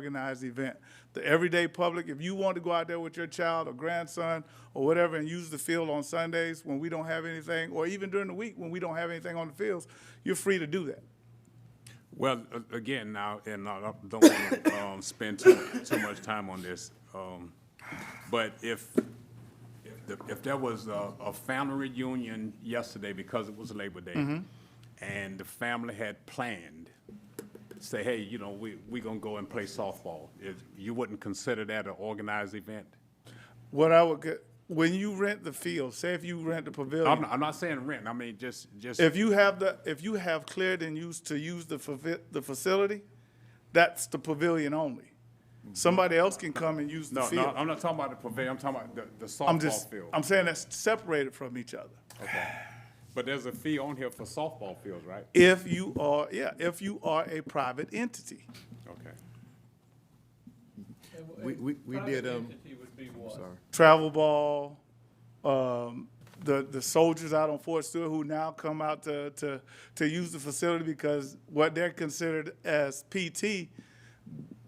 organized event. The everyday public, if you want to go out there with your child or grandson or whatever and use the field on Sundays when we don't have anything, or even during the week when we don't have anything on the fields, you're free to do that. Well, a- again, now, and I don't- don't want to spend too, too much time on this, um, but if, if the- if there was a, a family reunion yesterday because it was Labor Day, Mm-hmm. and the family had planned, say, hey, you know, we, we gonna go and play softball, if, you wouldn't consider that an organized event? What I would, get- when you rent the field, say if you rent the I'm, pavilion, I'm not saying rent, I mean, just, just, if you have the, if you have cleared and used to use the, favi- the facility, that's the pavilion only. Somebody else can come and use the no, no, field. I'm not talking about the pavilion, I'm talking about the, the I'm softball just, field. I'm saying that's separated from each other. Okay. But there's a fee on here for softball fields, right? If you are, yeah, if you are a private entity. Okay. We, we, we did, um, sorry. Travel ball, um, the, the soldiers out on Fort Stewart who now come out to, to, to use the facility because what they're considered as PT,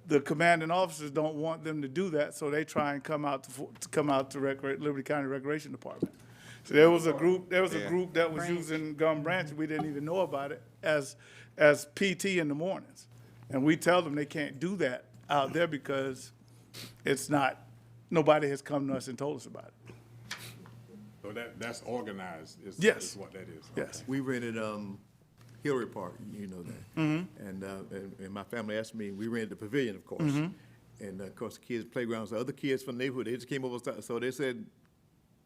the commanding officers don't want them to do that, so they try and come out to, Fo- to come out to Recre- Liberty County Recreation Department. So there was a group, there was a group that was using Gum Branch, we didn't even know about it, as, as PT in the mornings. And we tell them they can't do that out there because it's not, nobody has come to us and told us about it. So that, that's organized is, Yes. is what that is. Yes, We rented, um, Hillary Park, you know that. Mm-hmm. And, uh, and, and my family asked me, we rented the pavilion, of course. Mm-hmm. And uh, of course, the kids' playgrounds, the other kids from the neighborhood, they just came over, and started- so they said,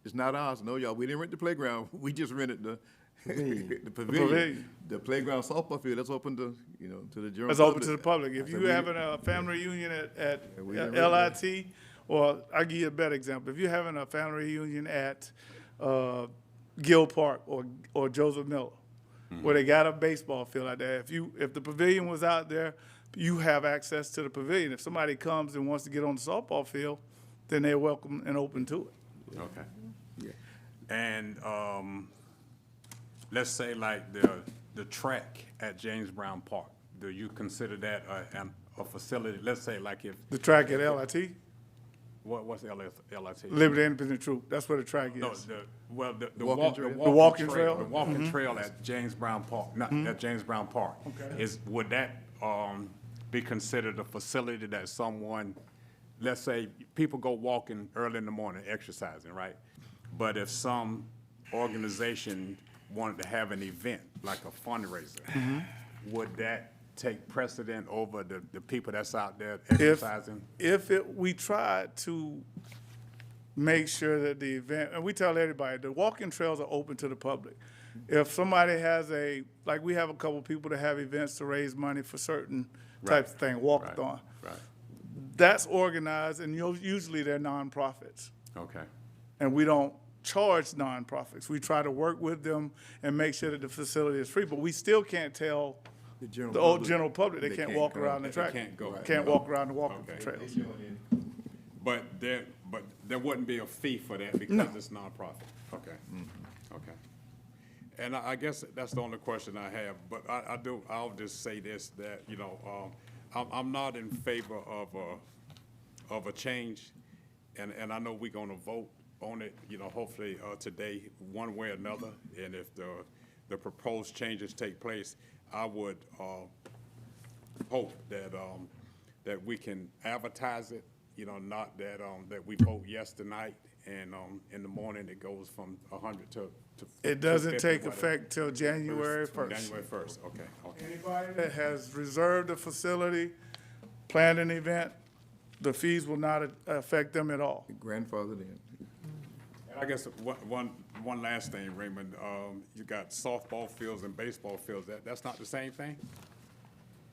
it's not ours, no, y'all, we didn't rent the playground, we just rented the, the pavilion. pavilion. The playground softball field, that's open to, you know, to the general. it's open to the public. I If said, you "We- having a uh, family reunion at, at Yeah, we didn't really- LIT, or I'll give you a better example, if you're having a family reunion at, uh, Gill Park or, or Joseph Miller, Mm-hmm. where they got a baseball field out there, if you, if the pavilion was out there, you have access to the pavilion. If somebody comes and wants to get on the softball field, then they're welcome and open to it. Okay. Yeah. And, um, let's say like the, the track at James Brown Park, do you consider that a, an, a facility? Let's say like if, The track at LIT, what, what's LS, LIT? Liberty Independent Troop, that's where the track No, is. the, well, the, the Walking walk, trail? the The walking walking trail, trail? Mm-hmm. the walking trail at James Brown Park, not, at James Brown Park. Okay. Is, would that, um, be considered a facility that someone, let's say, people go walking early in the morning, exercising, right? But if some organization wanted to have an event, like a Mm-hmm. fundraiser, would that take precedent over the, the people that's out there If, exercising? if it, we tried to make sure that the event, and we tell everybody, the walking trails are open to the public. If somebody has a, like, we have a couple people that have events to raise money for certain types of thing, Right, walkathon. Right, That's organized, and you'll- usually they're nonprofits. okay. and we don't charge nonprofits. We try to work with them and make sure that the facility is free, but we still can't tell The general the old public general public, they can't walk go. around the They track. can't go. Can't walk around the walking Okay. trails. But there, but there wouldn't be a fee for that because it's nonprofit. Okay, okay. And I, I guess that's the only question I have, but I, I do, I'll just say this, that, you know, um, I'm, I'm not in favor of a, of a change. And, and I know we're gonna vote on it, you know, hopefully, uh, today, one way or another. And if the, the proposed changes take place, I would, uh, hope that, um, that we can advertise it, you know, not that, um, that we vote yes tonight and, um, in the morning it goes from a hundred to, to. It to doesn't 50, take whatever. effect till January first. January first, okay, okay. Anybody that has reserved a facility, planned an event, the fees will not a- affect them at all. Grandfathered in. And I guess one, one, one last thing, Raymond, um, you got softball fields and baseball fields, that, that's not the same thing?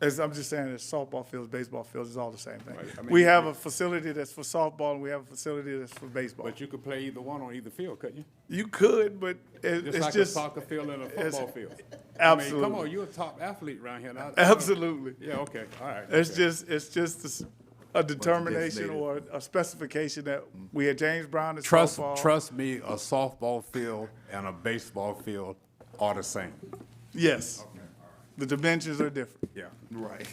As I'm just saying, it's softball fields, baseball fields, it's all the same thing. Right, I mean- We have a facility that's for softball and we have a facility that's for baseball. But you could play either one on either field, couldn't you? You could, but it, Just it's like a just soccer field and a football field. I mean, Come absolutely. on, you're a top athlete around here now. absolutely. Yeah, okay, all right. It's okay. just it's just a s- a determination designated. or a specification that we had James Brown as Trust, softball. trust me, a softball field and a baseball field are the same. Yes, the dimensions are different. Yeah. Right.